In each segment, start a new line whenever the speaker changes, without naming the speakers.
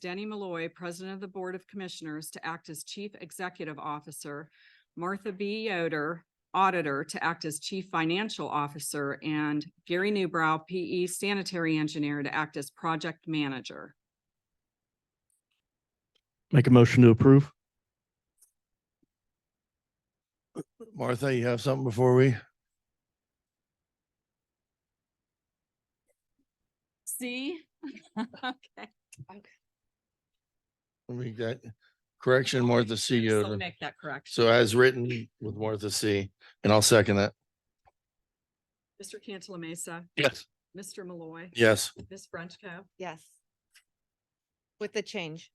Denny Malloy, President of the Board of Commissioners, to act as Chief Executive Officer, Martha B. Yoder, Auditor, to act as Chief Financial Officer, and Gary Newbrow, PE Sanitary Engineer, to act as Project Manager.
Make a motion to approve.
Martha, you have something before we?
See? Okay.
Let me get correction, Martha C.
So
Yoder.
Make that correction.
So as written with Martha C, and I'll second that.
Mr. Cantala Mesa,
Yes.
Mr. Malloy,
Yes.
Ms. Frenchco.
Yes. With the change.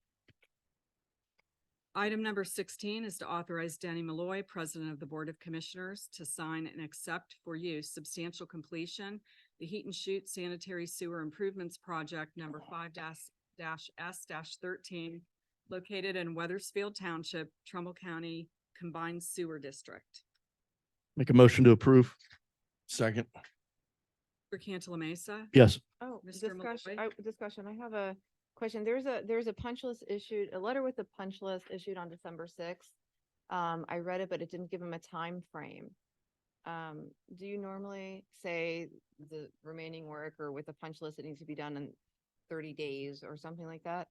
Item number sixteen is to authorize Danny Malloy, President of the Board of Commissioners, to sign and accept for use substantial completion the Heat and Shoot Sanitary Sewer Improvements Project number five dash dash S dash thirteen located in Weathersfield Township, Trumbull County Combined Sewer District.
Make a motion to approve.
Second.
For Cantala Mesa,
Yes.
Oh,
Mr.
discussion,
Malloy?
I- discussion. I have a question. There's a, there's a punch list issued, a letter with a punch list issued on December sixth. Um, I read it, but it didn't give him a time frame. Um, do you normally say the remaining work or with a punch list, it needs to be done in thirty days or something like that?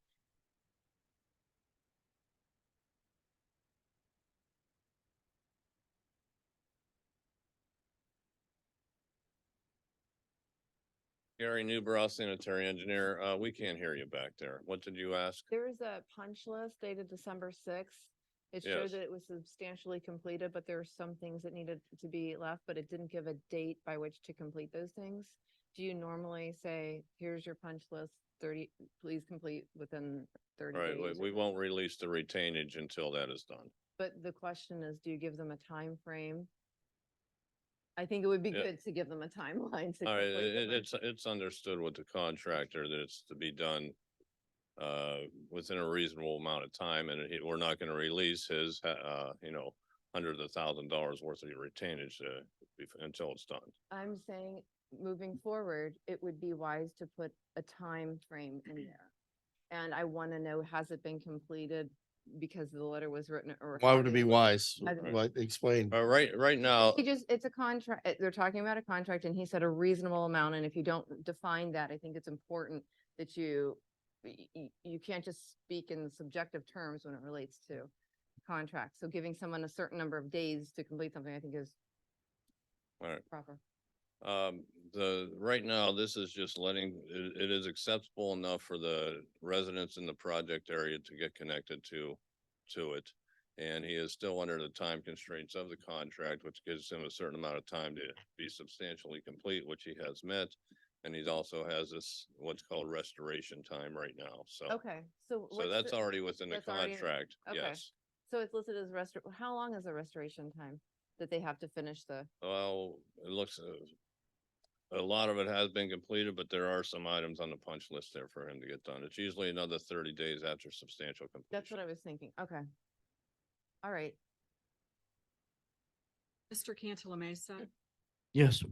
Gary Newbrow, sanitary engineer. Uh, we can't hear you back there. What did you ask?
There is a punch list dated December sixth. It showed
Yes.
that it was substantially completed, but there are some things that needed to be left, but it didn't give a date by which to complete those things. Do you normally say, here's your punch list, thirty, please complete within thirty
Right, we,
days?
we won't release the retainage until that is done.
But the question is, do you give them a time frame? I think it would be
Yeah.
good to give them a timeline to.
All right,
complete the
it,
punch
it's, it's understood with the contractor that it's to be done uh, within a reasonable amount of time and it- we're not gonna release his, uh, uh, you know, hundreds of thousand dollars worth of retainage uh, bef- until it's done.
I'm saying, moving forward, it would be wise to put a time frame in there. And I want to know, has it been completed because the letter was written or?
Why
how
would it be
they-
wise?
I don't-
What, explain.
But right, right now,
He just, it's a contract, they're talking about a contract and he said a reasonable amount. And if you don't define that, I think it's important that you, y- y- you can't just speak in subjective terms when it relates to contracts. So giving someone a certain number of days to complete something, I think is
all right,
proper.
Um, the, right now, this is just letting, it, it is acceptable enough for the residents in the project area to get connected to, to it. And he is still under the time constraints of the contract, which gives him a certain amount of time to be substantially complete, which he has met. And he also has this, what's called restoration time right now, so.
Okay, so.
So that's
already.
already within the
Oh, that's already in-
contract,
okay.
yes.
So it's listed as restor, how long is the restoration time that they have to finish the,
Well, it looks, uh, a lot of it has been completed, but there are some items on the punch list there for him to get done. It's usually another thirty days after substantial
that's what
completion.
I was thinking, okay. All right,
Mr. Cantala Mesa,
Yes.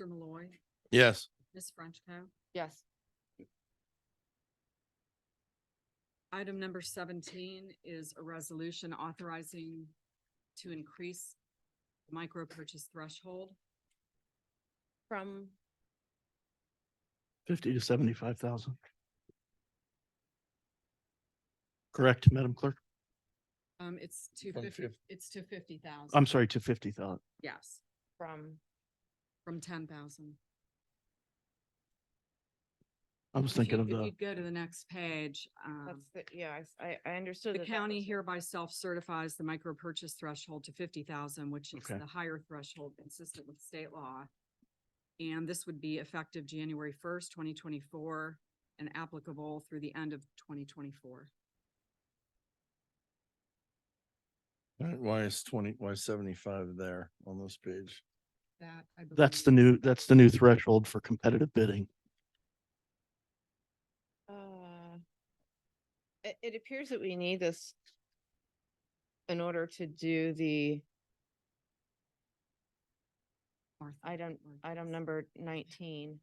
Mr. Malloy,
Yes.
Ms. Frenchco.
yes,
Item number seventeen is a resolution authorizing to increase micro purchase threshold.
from,
Fifty to seventy-five thousand. Correct, Madam Clerk?
Um, it's to
From
fifty,
fif-
it's to fifty thousand.
I'm sorry, to fifty thousand.
Yes,
from,
from ten thousand.
I was thinking of
If
the,
you go to the next page, um,
that's, the- yeah, I s- I, I understood.
the
that that
county
was-
hereby self-certifies the micro purchase threshold to fifty thousand, which is
Okay.
the higher threshold consistent with state law. And this would be effective January first, twenty twenty-four and applicable through the end of twenty twenty-four.
All right, Why is twenty, why is seventy-five there on this page?
That, I believe.
that's the new, that's the new threshold for competitive bidding.
Uh, It, it appears that we need this in order to do the
Martha.
item, item number nineteen.